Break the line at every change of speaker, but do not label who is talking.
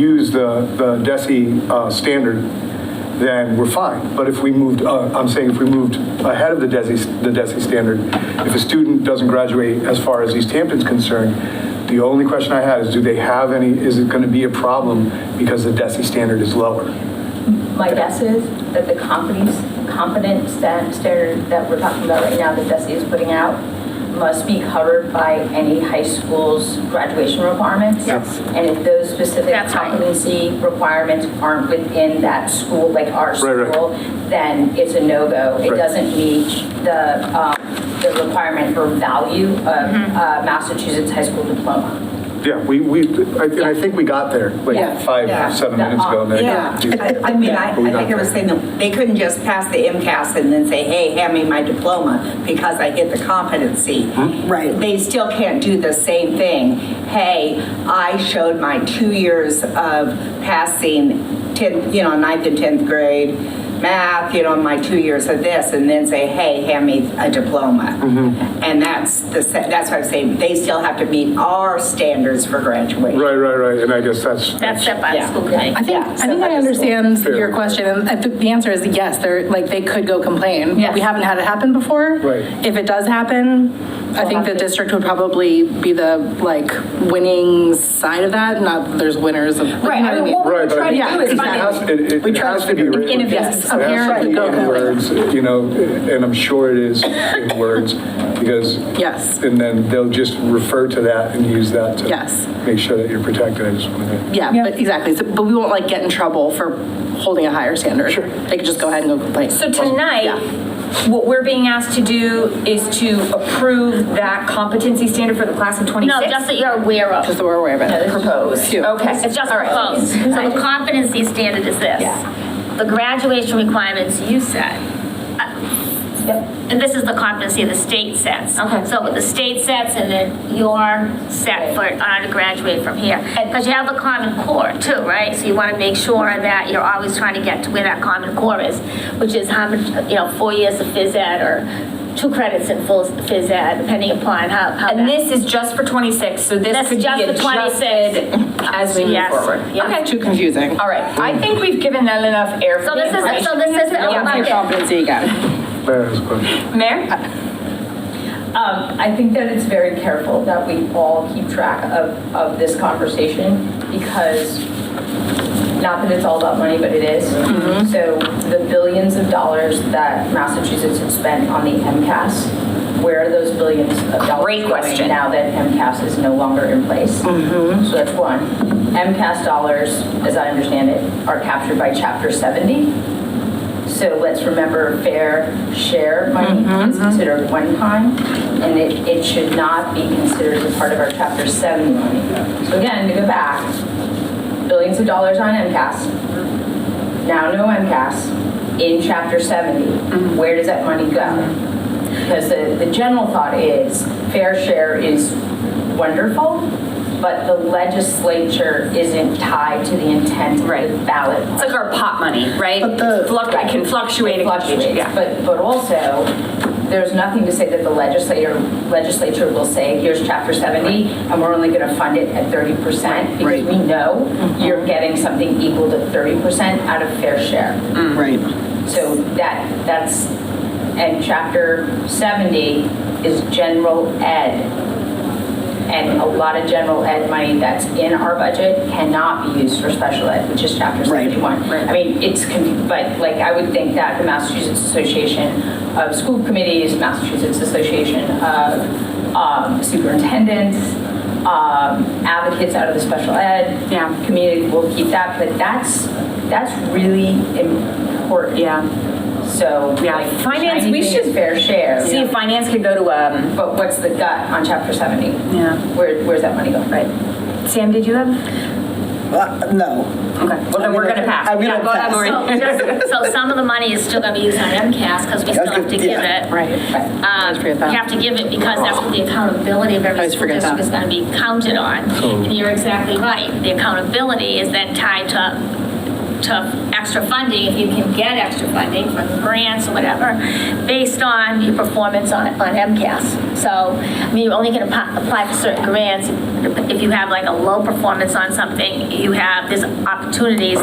use the, the DESI uh, standard, then we're fine. But if we moved, uh, I'm saying if we moved ahead of the DESI, the DESI standard, if a student doesn't graduate as far as East Hampton's concerned, the only question I had is, do they have any, is it going to be a problem because the DESI standard is lower?
My guess is that the companies, competent sta- standard that we're talking about right now, that Desi is putting out, must be covered by any high school's graduation requirements.
Yes.
And if those specific
That's right.
competency requirements aren't within that school, like our
Right, right.
school, then it's a no-go. It
Right.
doesn't meet the, um, the requirement for value of
Mm-hmm.
uh, Massachusetts high school diploma.
Yeah, we, we, I- and I think we got there
Yeah.
like five, seven
Yeah.
minutes ago. and I-
Yeah,
I I mean, I, I
But we got
think I
there.
was saying that they couldn't just pass the MCAS and then say, hey, hand me my diploma because I hit the competency.
Right.
They still can't do the same thing. Hey, I showed my two years of passing 10, you know, ninth and 10th grade math, you know, my two years of this, and then say, hey, hand me a diploma. And that's the, se- that's what I'm saying, they still have to meet our standards for graduation.
Right, right, right, and I guess that's.
That's set by the
Yeah.
school committee.
I think,
Yeah,
I
so
think
that
I
is-
understand
Fair.
your question, and I think the answer is yes, they're, like, they could go complain.
Yes.
We haven't had it happen before.
Right.
If it does happen, I think the district would probably be the, like, winning side of that, not that there's winners of.
Right, I mean, what
Right,
we're
but
trying to do
it
is
has-
find.
It, it-
We
it
try
has
to
to be written.
innovate.
It has to
Apparently,
be
go
in
ahead.
words, you know, and I'm sure it is in words, because.
Yes.
And then they'll just refer to that and use that to.
Yes.
Make sure that you're protected, I just wanted to.
Yeah, but exactly, So- but we won't, like, get in trouble for holding a higher standard.
Sure.
They could just go ahead and go complain.
So tonight, what we're being asked to do is to approve that competency standard for the class of 26?
No, just that you're aware of.
Just so we're aware of it.
Proposed, okay.
It's just
All right.
proposed. So the competency standard is this. The graduation requirements you set. uh, And this is the competency the state sets.
Okay.
So what the state sets and then your set for, uh, to graduate from here. Because you have the common core too, right? So you want to make sure that you're always trying to get to where that common core is, which is how much, you know, four years of phys ed or two credits in full phys ed, depending upon how, how
And
that-
this is just for 26, so this
That's
could be
just for 26.
adjusted as we move
Yes,
forward.
yes.
Okay,
Too confusing.
all right. I think we've given that enough air for
So
the
this is, so
information.
this is the
Yeah,
open
Back to
bucket.
competency again.
Claire has a question.
Mayor?
Um, I think that it's very careful that we all keep track of, of this conversation because, not that it's all about money, but it is.
Mm-hmm.
So the billions of dollars that Massachusetts had spent on the MCAS, where are those billions of dollars
Great question. Mm-hmm.
going now that MCAS is no longer in place? So that's one. MCAS dollars, as I understand it, are captured by Chapter 70. So let's remember fair share money is considered one time, and it, it should not be considered as a part of our chapter seven money. So again, to go back, billions of dollars on MCAS, now no MCAS, in chapter seventy, where does that money go? Because the, the general thought is fair share is wonderful, but the legislature isn't tied to the intent of the
Right.
ballot.
It's like our pot money, right?
But the-
Fluc- It can fluctuate.
It fluctuates,
Yeah.
but, but also, there's nothing to say that the legislator, legislature will say, here's chapter 70, and we're only going to fund it at 30%, because we know
Mm-hmm.
you're getting something equal to 30% out of fair share.
Right.
So that, that's, and chapter 70 is general ed. And a lot of general ed money that's in our budget cannot be used for special ed, which is chapter 71. I mean, it's, con- but like, I would think that the Massachusetts Association of School Committees, Massachusetts Association of um, Superintendents, um, advocates out of the special ed
Yeah.
community will keep that, but that's, that's really important.
Yeah.
So.
Yeah,
like,
finance,
shiny
we
thing
should
is Fair share.
See if finance could go to, um,
But what's the gut on chapter 70?
Yeah.
Where, where's that money going?
right. Sam, did you have?
Uh, No.
Okay, well then we're gonna pass.
I'm gonna
Yeah, go ahead,
pass.
Lori.
So just- So some of the money is still gonna be used on MCAS, because we still have to give
Yeah.
it.
Right.
Right.
Um,
forget that.
You have to give it because that's what the accountability of every
Always
school
forget that.
district is gonna be counted on. And you're exactly right, the accountability is then tied to to extra funding, if you can get extra funding from grants or whatever, based on your performance on, on MCAS. So, I mean, you're only going to apply for certain grants. If you have like a low performance on something, you have, there's opportunities